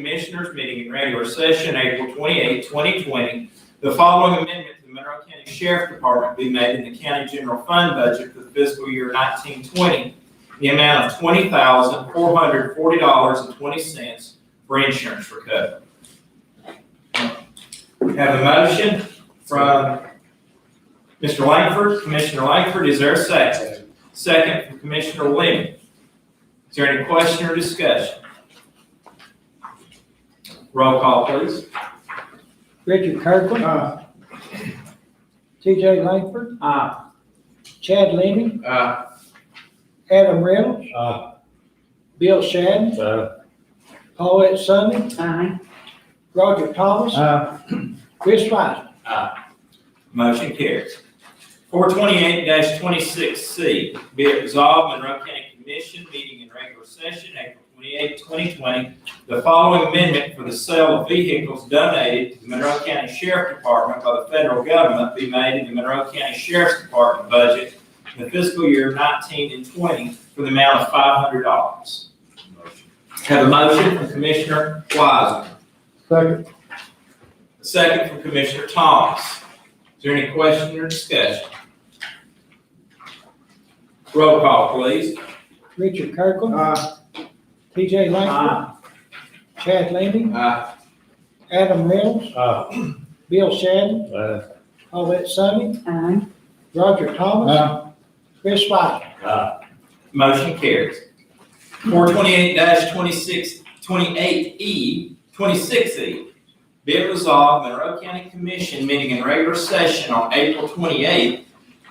Commissioners meeting in regular session, April 28, 2020. The following amendment to the Monroe County Sheriff Department be made in the county general fund budget for the fiscal year 1920. The amount of $20,440.20 for insurance recovery. We Have a motion from Mr. Langford. Commissioner Langford, is there a second? Second from Commissioner Lee. Is there any question or discussion? Roll call, please. Richard Kirkland. T.J. Langford. Aye. Chad Leeny. Aye. Adam Reynolds. Aye. Bill Shannon. Paulette Summey. Aye. Roger Thomas. Chris Weisman. Motion carries. Four twenty-eight twenty-six C, be it resolved, Monroe County Commission meeting in regular session, April 28, 2020. The following amendment for the sale of vehicles donated to the Monroe County Sheriff Department by the federal government be made in the Monroe County Sheriff's Department budget in the fiscal year nineteen and twenty for the amount of five hundred dollars. Have a motion from Commissioner Wiseman. Second. A Second from Commissioner Thomas. Is there any question or discussion? Roll call, please. Richard Kirkland. T.J. Langford. Chad Leeny. Aye. Adam Reynolds. Aye. Bill Shannon. Aye. Paulette Summey. Aye. Roger Thomas. Chris Weisman. Aye. Motion carries. Four twenty-eight 26 28 E, twenty-six E. Be it resolved, Monroe County Commission meeting in regular session on April twenty-eighth,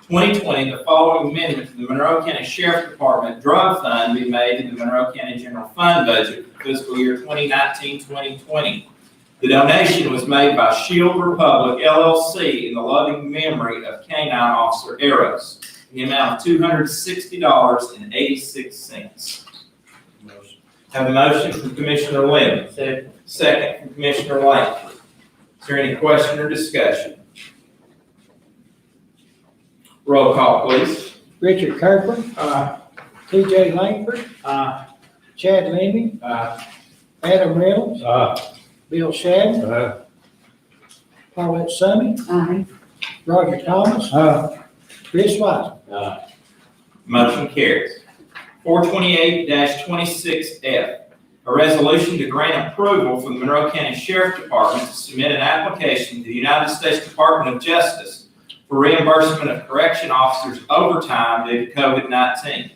twenty twenty, the following amendment to the Monroe County Sheriff Department Drug Fund be made in the Monroe County General Fund budget for fiscal year 2019-2020. The donation was made by Shield Republic LLC in the loving memory of K-9 Officer Eros in the amount of two hundred sixty dollars and eighty-six cents. Have a motion from Commissioner Lynn. Second. from Commissioner Langford. Is there any question or discussion? Roll call, please. Richard Kirkland. Aye. T.J. Langford. Aye. Chad Leeny. Aye. Adam Reynolds. Aye. Bill Shannon. Aye. Paulette Summey. Aye. Roger Thomas. Aye. Chris Weisman. Aye. Motion carries. Four twenty-eight twenty-six F, a resolution to grant approval from the Monroe County Sheriff Department to submit an application to the United States Department of Justice for reimbursement of correction officers overtime due to COVID-19.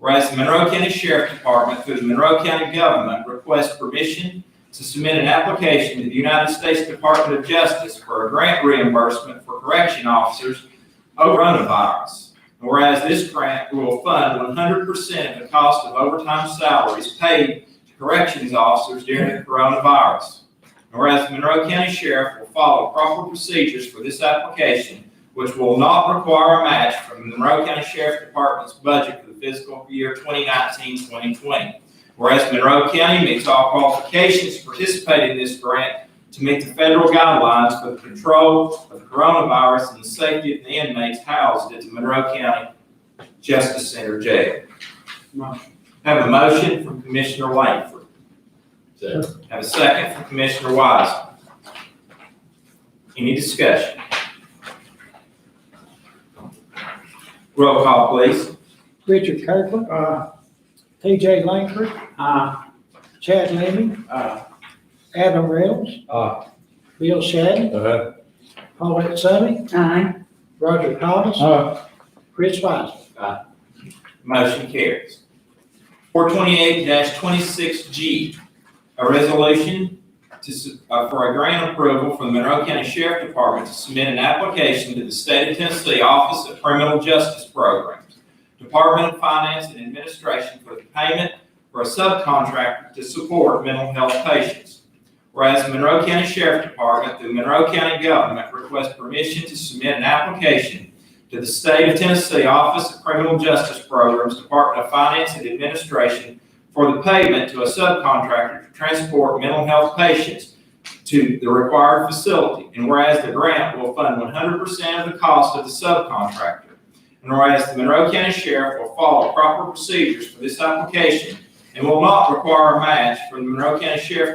Whereas the Monroe County Sheriff Department through the Monroe County Government requests permission to submit an application to the United States Department of Justice for a grant reimbursement for correction officers over coronavirus. Whereas this grant will fund one hundred percent of the cost of overtime salaries paid to corrections officers during the coronavirus. Whereas the Monroe County Sheriff will follow proper procedures for this application, which will not require a match from the Monroe County Sheriff Department's budget for the fiscal year 2019-2020. Whereas Monroe County meets all qualifications to participate in this grant to meet the federal guidelines for the control of the coronavirus and the safety of the inmates housed at the Monroe County Justice Center Jail. Have a motion from Commissioner Langford. Second. Have a second from Commissioner Wiseman. Any discussion? Roll call, please. Richard Kirkland. T.J. Langford. uh, Chad Leeny. Adam Reynolds. Aye. Bill Shannon. Aye. Paulette Summey. Aye. Roger Thomas. Aye. Chris Weisman. Motion carries. Four twenty-eight twenty-six G, a resolution to, s- uh, for a grant approval from the Monroe County Sheriff Department to submit an application to the State of Tennessee Office of Criminal Justice Programs, Department of Finance and Administration for the payment for a subcontractor to support mental health patients. Whereas the Monroe County Sheriff Department, through Monroe County Government, requests permission to submit an application to the State of Tennessee Office of Criminal Justice Programs, Department of Finance and Administration for the payment to a subcontractor to transport mental health patients to the required facility. And whereas the grant will fund one hundred percent of the cost of the subcontractor. And whereas the Monroe County Sheriff will follow proper procedures for this application and will not require a match from the Monroe County Sheriff